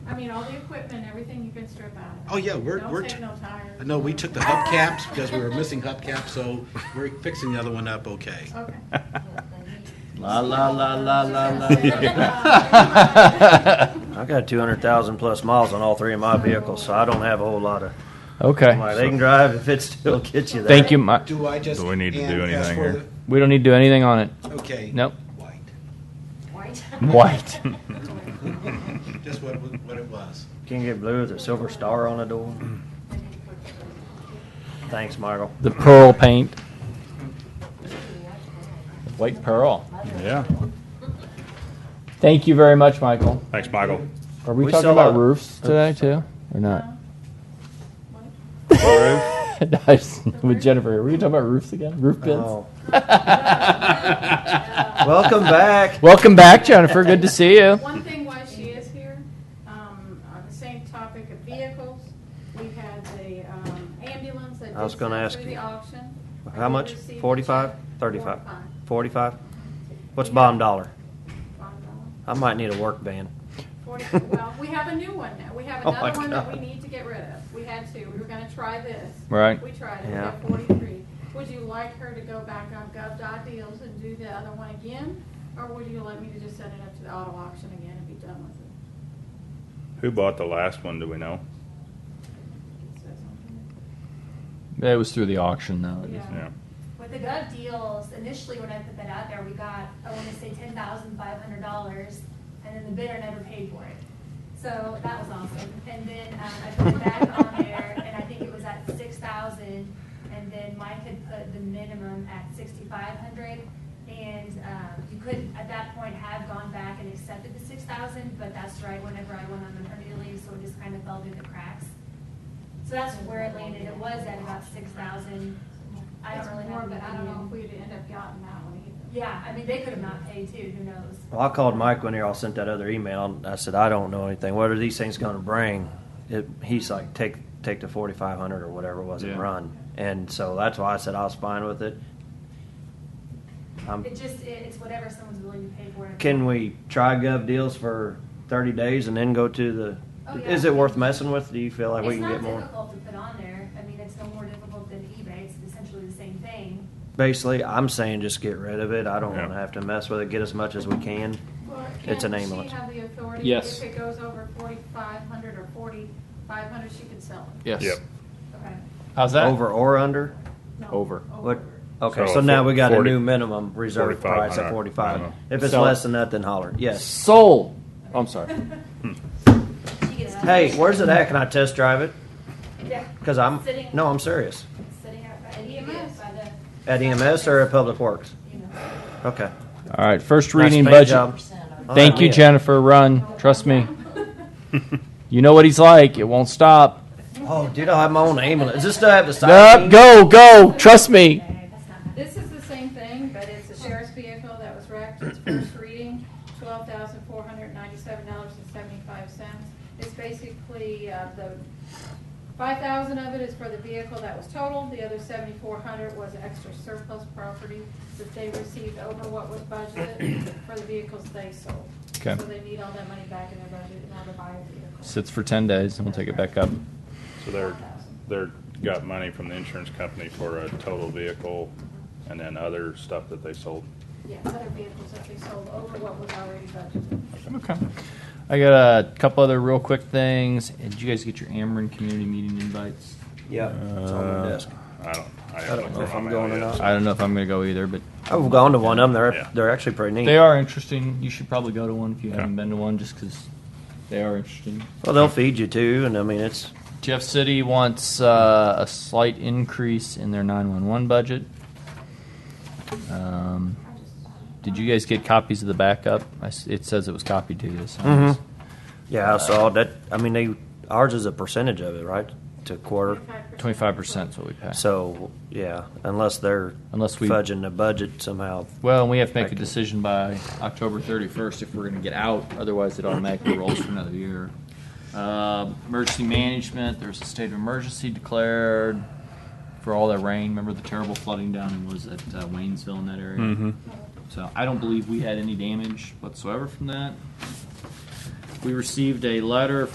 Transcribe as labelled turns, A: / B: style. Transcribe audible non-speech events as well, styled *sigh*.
A: I mean, all the equipment, everything you can strip out. of it.
B: Oh, yeah, we're-
A: Don't
B: we're
A: take
B: t-
A: no tires.
B: No, we took the hubcaps because we were missing hubcaps, so we're fixing the other one up okay.
A: Okay.
C: La, la, la, la, la,
D: *laughs*
C: la.
A: Uh,
D: I got two hundred thousand plus miles on all three of my vehicles, so I don't have a whole lot of,
C: Okay.
D: like, they can drive if it still gets you there.
C: Thank you. Mi-
B: Do I just?
E: Do we need to do
B: and ask
E: anything
B: for
E: here?
C: We don't need to do anything on it. *laughs*
B: the- Okay.
C: Nope.
B: White.
F: White.
C: White.
B: Just what, what it was.
D: Can you get blue with a silver star on the door? Thanks, Michael.
C: The pearl paint. White pearl.
E: Yeah.
C: Thank you very much, Michael.
E: Thanks, Michael.
C: Are we,
D: We
C: talking
D: sell
C: about
D: a-
C: roofs today too, or not?
D: Roof?
C: *laughs* Nice. With Jennifer, are we talking about roofs again? Roof bins.
D: Oh.
C: *laughs*
D: Welcome back.
C: Welcome back, Jennifer. Good to see you.
A: One thing why she is here, um, on the same topic of vehicles, we had the, um, ambulance that
D: I was
A: just
D: gonna
A: went
D: ask
A: through
D: you.
A: the auction. I
D: How
A: did
D: much?
A: receive a check.
D: Forty-five? Thirty-five?
A: Forty-five.
D: Forty-five? What's bottom dollar?
A: Five dollars.
D: I might need a work van.
A: Forty- Well, we have a new one now. We have
D: Oh my
A: another one that we
D: God.
A: need to get rid of. We had two. We were gonna try this.
C: Right.
A: We tried it. We
D: Yeah.
A: got forty-three. Would you like her to go back on gov.deals and do the other one again? Or would you like me to just send it up to the auto auction again and be done with it?
E: Who bought the last one? Do we know?
A: Is that something?
C: It was through the auction, though.
A: Yeah.
E: Yeah.
F: With the gov deals, initially when I put that out there, we got, I want to say ten thousand five hundred dollars, and then the bidder never paid for it. So that was awesome. And then um, I put it back on there, and I think it was at six thousand, and then Mike had put the minimum at sixty-five hundred. And um, you could, at that point, have gone back and accepted the six thousand, but that's right whenever I went on maternity leave, so it just kind of fell through the cracks. So that's where it landed. It was at about six thousand. I
A: It's
F: don't really
A: more,
F: have
A: but
F: an
A: I don't know if
F: opinion.
A: we'd end up getting that one either.
F: Yeah, I mean, they could have not paid too, who knows?
D: Well, I called Mike when y'all sent that other email. And I said, I don't know anything. What are these things going to bring? It, he's like, take take the 4500 or whatever it was
C: Yeah.
D: and run. And so that's why I said I was fine with it. Um,
F: It just, it- it's whatever someone's willing to pay for it.
D: can we try gov deals for 30 days and then go to the?
F: Oh, yeah.
D: Is it worth messing with? Do you feel like we can get
F: It's not
D: more?
F: difficult to put on there. I mean, it's no more difficult than eBay. It's essentially the same thing.
D: Basically, I'm saying just get rid of it. I don't
E: Yeah.
D: want to have to mess with it. Get as much as we can.
A: Well,
D: It's an
A: can
D: ambulance.
A: She have the authority.
C: Yes.
A: If it goes over forty-five hundred or forty-five hundred, she can sell it.
C: Yes.
E: Yep.
A: Okay.
C: How's that?
D: Over or under?
A: No,
C: Over.
D: What? Okay,
E: So
D: so now we got a
E: 40
D: new minimum reserve price at
E: 4500.
D: forty-five.
E: Uh-huh.
D: If it's
C: So-
D: less than that, then holler, yes.
C: Sold. I'm sorry.
F: She gets to-
D: Hey, where's it at? Can I test drive it?
F: Yeah,
D: Cause I'm,
F: Sitting-
D: no, I'm serious.
F: Sitting out by the
A: EMS.
F: by the.
D: At EMS or at Public Works?
F: EMS.
D: Okay.
C: All right. First
D: Nice
C: reading
D: paint
C: budget.
D: job.
C: Thank you,
D: Yeah.
C: Jennifer. Run. Trust me.
A: *laughs*
C: You know what he's like. It won't stop.
D: Oh, dude, I have my own ambulance. Does this still have the
C: Nope.
D: side?
C: Go.
D: Oh,
C: Go. Trust me.
F: Okay, that's not bad.
A: This is the same thing, but it's a sheriff's vehicle that was wrecked, it's first reading, twelve thousand four hundred ninety-seven dollars and seventy-five cents. It's basically, uh, the, five thousand of it is for the vehicle that was totaled, the other seventy-four hundred was extra surplus property that they received over what was
C: *coughs*
A: budgeted for the vehicles they sold.
C: Okay.
A: So they need all that money back in their budget in order to buy a vehicle.
C: Sits for ten days, and we'll take it back up.
E: So they're they're got money from the insurance company for a total vehicle, and then other stuff that they sold.
A: Yeah, other vehicles that they sold over what was already budgeted.
C: Okay. I got a couple other real quick things. Did you guys get your Ameren community meeting invites? Uh,
D: Yeah, it's on my desk.
E: I don't. I,
D: don't
E: haven't
D: know
E: looked
D: if
E: at
D: I'm
E: my
D: going or
E: yet,
D: not.
E: so-
C: I don't know if I'm going to go either, but
D: I've gone to one of them.
E: Yeah.
D: They're, they're actually pretty
C: They
D: neat.
C: are interesting. You should probably go to one if you
E: Okay.
C: haven't been to one, just because they are interesting.
D: Well, they'll feed you too, and I mean, it's,
C: Jeff City wants uh, a slight increase in their 911 budget. Um, did you guys get copies of the backup? I s it says it was copied to you. So
D: Mhm. yeah, I saw that. I mean, they, ours is a percentage of it, right? To quarter.
C: 25% is what we passed.
D: So, yeah, unless they're
C: Unless we-
D: fudging the budget somehow.
C: Well, and we have to make a
D: Thank you.
C: decision by October 31st if we're going to get out. Otherwise, it automatically rolls for another year. Uh, emergency management, there's a state of emergency declared for all that rain. Remember the terrible flooding down in, was it uh, Waynesville in that area?
D: Mm-hmm.
C: So I don't believe we had any damage whatsoever from that. We received a letter